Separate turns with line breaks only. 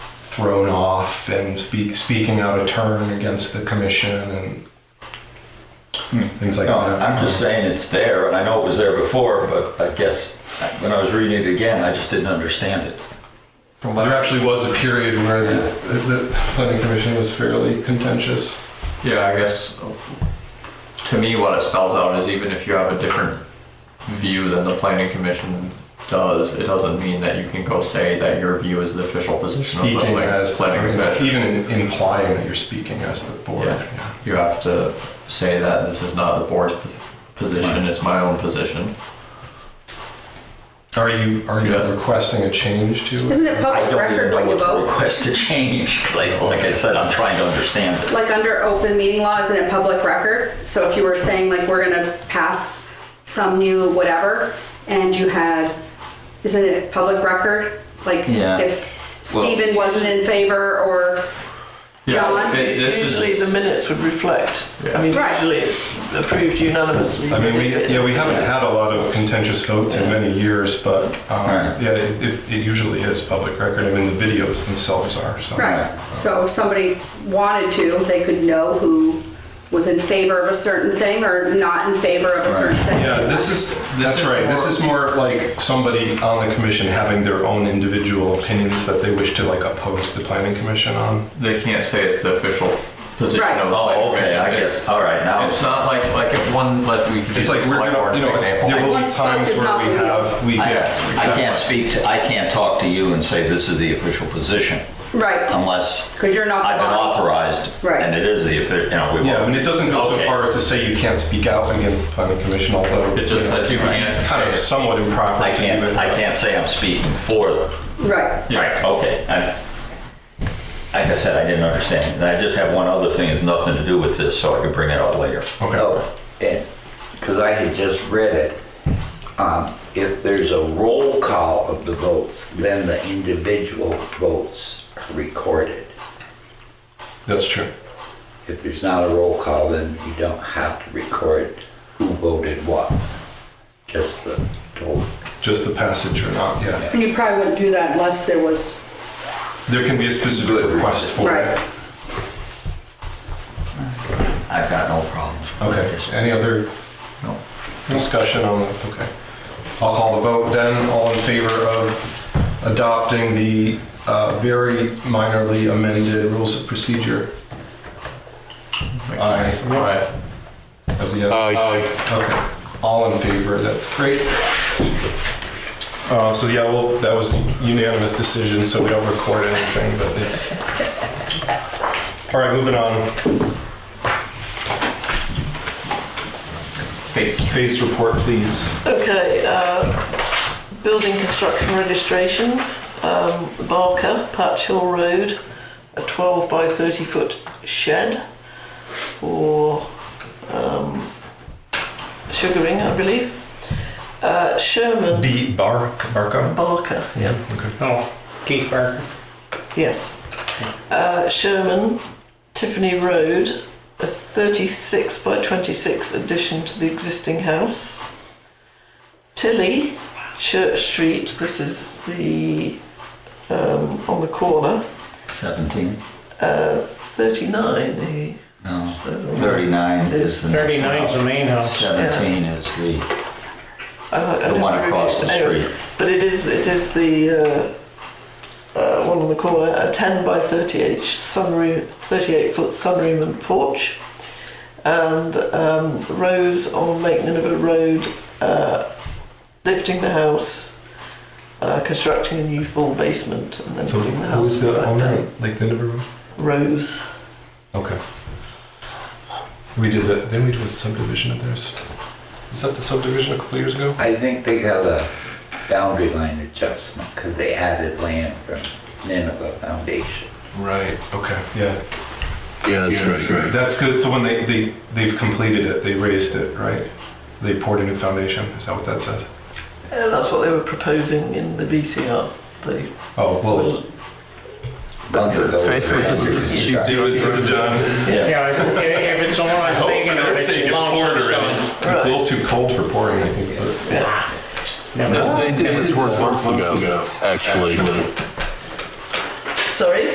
thrown off and speak, speaking out of turn against the commission and things like uh,
No,
that.
I'm just saying it's there, and I know it was there before, but I guess when I was reading it again, I just didn't understand it.
Well, Um, there actually was a period where the, the planning commission was fairly contentious.
Yeah, I guess to me, what it spells out is even if you have a different view than the planning commission does, it doesn't mean that you can go say that your view is the official position of the
Speaking
plan-
as,
planning commission.
even in- implying that you're speaking as the board.
Yeah.
yeah.
You have to say that this is not the board's p- position, it's my own position.
Are you, are you
Yes.
requesting a change to?
Isn't it
I
public
don't even
record
know
what you
what to
vote?
request to change. 'cause Like, like I said, I'm trying to understand it.
Like under open meeting law, isn't it public record? So if you were saying like, we're gonna pass some new whatever, and you had, isn't it public record? Like
Yeah.
if Stephen wasn't in favor or John?
it- this is-
Usually the minutes would reflect. I mean,
Right.
usually it's approved unanimously.
I mean,
but
we,
if it-
yeah, we haven't had a lot of contentious votes in many years, but, um,
Right.
yeah, it, it- it usually is public record. I mean, the videos themselves are, so.
Right, so if somebody wanted to, they could know who was in favor of a certain thing or not in favor of a certain thing.
Yeah, this is, that's right. This is more like somebody on the commission having their own individual opinions that they wish to like oppose the planning commission on.
They can't say it's the official position
Right.
of the planning
Oh,
commission.
okay, I
It's-
guess, all right, now.
It's not like, like if one, like we could use
It's like,
the
we're
select
gonna, you
board as an
know, there
example.
will
One
be
spoke
times
is
where
not
we
the wheel.
have, we,
I
Yes,
I can't speak, to I can't talk to you and say this is the official position
Right,
unless
because you're not the
I've been
body.
authorized.
Right.
And it is the, offi- you know, we.
yeah, I mean, it doesn't go so
Okay.
far as to say you can't speak out against the planning commission, although.
It just
you know,
says you can't
Kind of
say-
somewhat improper.
I
to do
can't,
it.
I can't say I'm speaking for them.
Right.
Right, okay. I- Like I said, I didn't understand. And I just have one other thing, it's nothing to do with this, so I can bring it up later.
Okay.
Oh, because I had just read it. Um, If there's a roll call of the votes, then the individual votes are recorded.
That's true.
If there's not a roll call, then you don't have to record who voted what, just the total.
Just the passage or not, yeah.
You probably wouldn't do that unless there was,
There can be a specific
Good.
request for it.
right.
I've got no problems.
Okay, any other discussion on, that? okay. I'll call the vote then, all in favor of adopting the uh, very minorly amended rules of procedure? Aye,
All right.
as a yes. Okay, all in favor, that's great. Uh, So yeah, well, that was unanimous decision, so we don't record anything, but it's. All right, moving on.
Face
Face report, please.
Okay, uh, building construction registrations, um, Barker, Patch Hill Road, a 12 by 30 foot shed for um, sugaring, I believe. Uh, Sherman
B. Bar, Barca?
Barker, yeah.
Oh, Keith Barker.
Yes. Uh, Sherman, Tiffany Road, a 36 by 26 addition to the existing house. Tilly, Church Street, this is the, um, on the corner,
17?
uh, 39. eh?
No, 39 is the next one.
39 is the main house.
17 is the,
I don't- I
the
don't
one
know if
across the
it's- anyway,
street.
But it is, it is the, uh, uh, one on the corner, a 10 by 38 sunroom, 38 foot sunroom and porch. And um, Rose on Lake Nineveh Road, uh, lifting the house, uh, constructing a new full basement, and then
So
putting the house
who's the
back
owner,
down.
Lake Nineveh?
Rose.
Okay. We did that, then we do a subdivision of theirs. Was that the subdivision a couple years ago?
I think they got a boundary line adjustment because they added land from Nineveh Foundation.
Right, okay, yeah.
Yeah, that's right.
That's good, so when they, they, they've completed it, they raised it, right? They poured a new foundation, is that what that said?
Yeah, that's what they were proposing in the BCR. They
Oh, well, it's.
Months ago, they
Facebook
added
is-
these
she's
guys.
doing-
John.
Yeah, if- if it's on,
Oh,
I think it's long since done.
It's a little too cold for pouring, I think, but.
They did this work months ago, actually.
Sorry?